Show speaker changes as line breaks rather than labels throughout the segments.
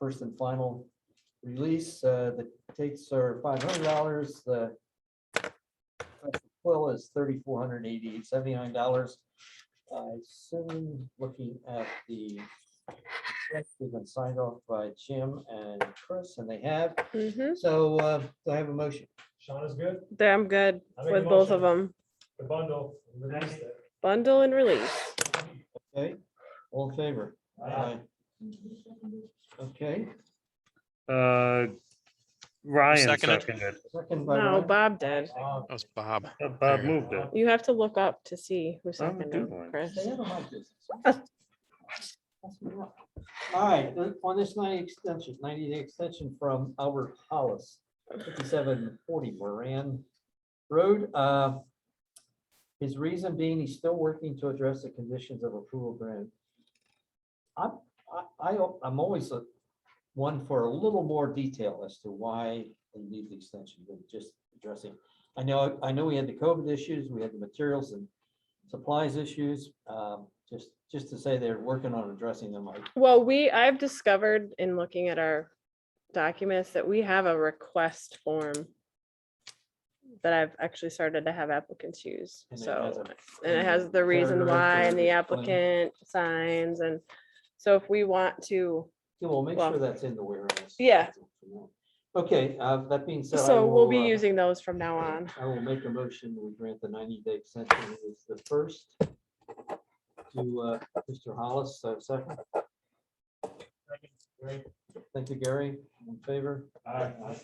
first and final release. Uh, The takes are five hundred dollars, the quill is thirty-four hundred eighty-eight, seventy-nine dollars. I assume, looking at the, they've been signed off by Jim and Chris, and they have.
Mhm.
So uh, do I have a motion?
Sean is good,
Then I'm good
I make a
with both of
motion.
them.
the bundle, release it.
Bundle and release.
Okay, all in favor?
Aye.
Okay,
Uh, Ryan
seconded?
seconded.
second by
No,
Ryan.
Bob did.
Uh,
That was Bob.
Uh, Bob
There.
moved it.
You have to look up to see who
I'm
seconded,
doing.
uh, Chris.
They don't like this. All right, on- on this ninety extension, ninety day extension from Albert Hollis, fifty-seven forty Moran Road. uh, His reason being, he's still working to address the conditions of approval grant. I'm, I, I, I'm always a- one for a little more detail as to why they need the extension than just addressing. I know, I know we had the COVID issues, we had the materials and supplies issues, um, just, just to say they're working on addressing them. I-
Well, we, I've discovered in looking at our documents that we have a request form that I've actually started to have applicants use.
and it has
So,
a-
and it has the reason
paragraph
why
or
and the
explain.
applicant signs and so if we want to,
Yeah, Well, make
well,
sure that's in the warehouse.
yeah.
Okay, uh, that being said. I
so we'll be
will, uh,
using those from now on.
I will make a motion, we grant the ninety day extension, It is the first to, uh, Mr. Hollis, so second. Thank you, Gary, in favor?
Aye.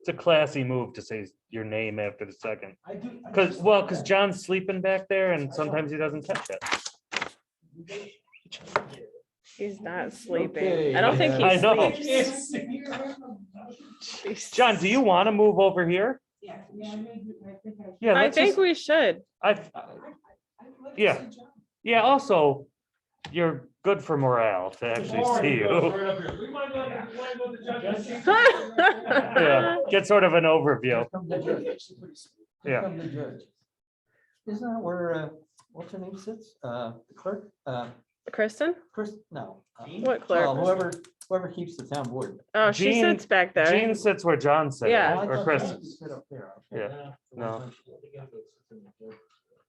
It's a classy move to say your name after the second.
I do. I
Cause,
just-
well, cause John's sleeping back there and sometimes he doesn't catch it.
He's not sleeping. I
Okay,
don't think
yeah.
I
he
know.
sleeps. Jeez.
John, do you want to move over here?
Yeah, yeah, I mean, I think I.
Yeah,
I
let's
think
just,
we should.
I,
I'd like to
Yeah.
see John.
yeah, also, you're good for morale to actually
Tomorrow
see
he goes
you.
right up here. We might not have to play with the judges.
Yeah, get sort of an overview.
Come to judge.
Yeah.
Come to judge. Isn't that where, uh, what's her name sits? Uh, the clerk, uh,
Kristen?
Chris, no. uh,
What
well,
clerk?
Whoever, whoever keeps the town board.
Oh, she
Jean-
sits back
Gene
there.
sits where John sits,
Yeah.
right? or Chris. is.
Yeah.
No.
Uh,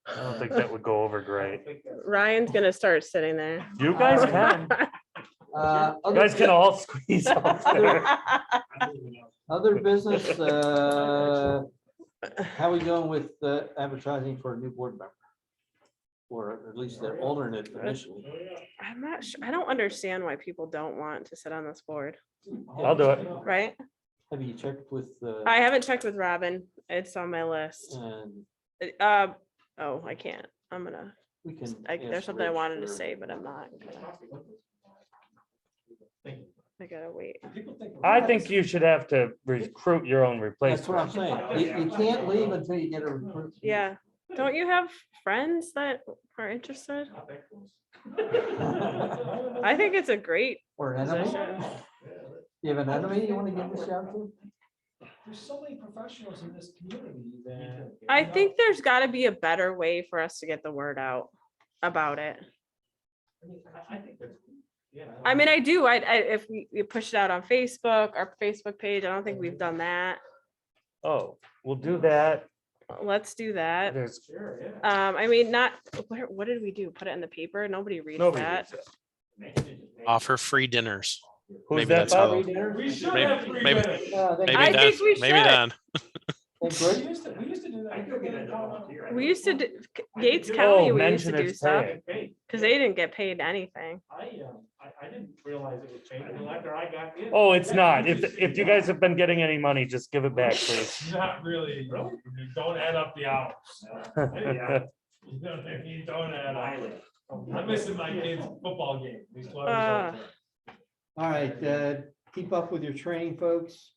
I don't think that would go over great.
Ryan's gonna start sitting there. Oh.
You guys can,
uh,
you guys can all squeeze up there.
Other business, uh, how we going with uh, advertising for a new board member? Or at least their alternate
Oh,
initially.
I'm not sure. I don't understand why people don't want to sit on this board,
I'll do it.
right?
Have you checked with? uh,
I haven't checked with Robin. It's on my list.
and
Uh, um, oh, I can't. I'm gonna,
we can
I, there's
ask
something I
Rich
wanted to
or-
say, but I'm not. gonna- I gotta wait.
I think you should have to recruit your own
That's what I'm
replacement.
saying. You, you can't leave until you get a recruit.
Yeah. Don't you have friends that are interested? I think it's a great
Or an enemy.
position.
You have an enemy you want to give a shout to?
There's so many professionals in this community that.
I think there's gotta be a better way for us to get the word out about it.
I mean, I- I think that's- yeah.
I mean, I do, I, I, if we, we push it out on Facebook, our Facebook page, I don't think
Mm-hmm.
we've done that.
Oh, we'll do that.
Let's do that.
There's
Sure, yeah.
Um, I mean, not, what, what did we do? Put it in the paper? Nobody reads
nobody.
that.
reads it.
Offer free dinners.
Who's
Maybe
that,
that's
Bob?
how-
We should
Maybe-
have three
maybe-
minutes.
Uh, they-
Maybe
I think
that's,
we
maybe
should.
Don.
they
We
great.
used to, we used to do that.
We used to, d-
I
Gates
think-
County,
Oh,
we used to
mention
do
it's
stuff,
pay.
cause they didn't get paid anything.
I, um, I, I didn't realize it was changing until after I got in.
Oh, it's not. If, if you guys have been getting any money, just give it back, please.
Not really, You don't add up the hours. You don't, you don't add up. I'm missing my kid's football game. These
Uh.
twelve years old.
All right, uh, keep up with your training, folks.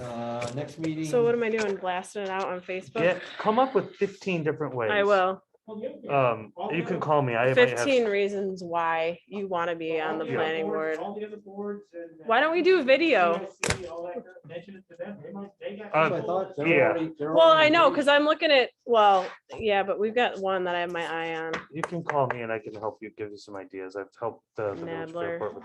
Uh, next meeting.
So what am I doing? Blasting it out on Facebook?
Get, come up with fifteen different ways.
I will.
Well, the other thing-
Um, you can call me. I might have-
Fifteen reasons why you wanna be on the
all other
planning
boards-
board.
All the other boards and.
Why don't we do video?
CIC, all that, mention it to them. They might- they got
Uh,
That's what I thought. They're
Yeah.
already- they're
Well, I
already
know,
engaged.
cause I'm looking at, well, yeah, but we've got one that I have my eye on.
You can call me and I can help you, give you some ideas. I've helped the the village
Nadler.
fair board with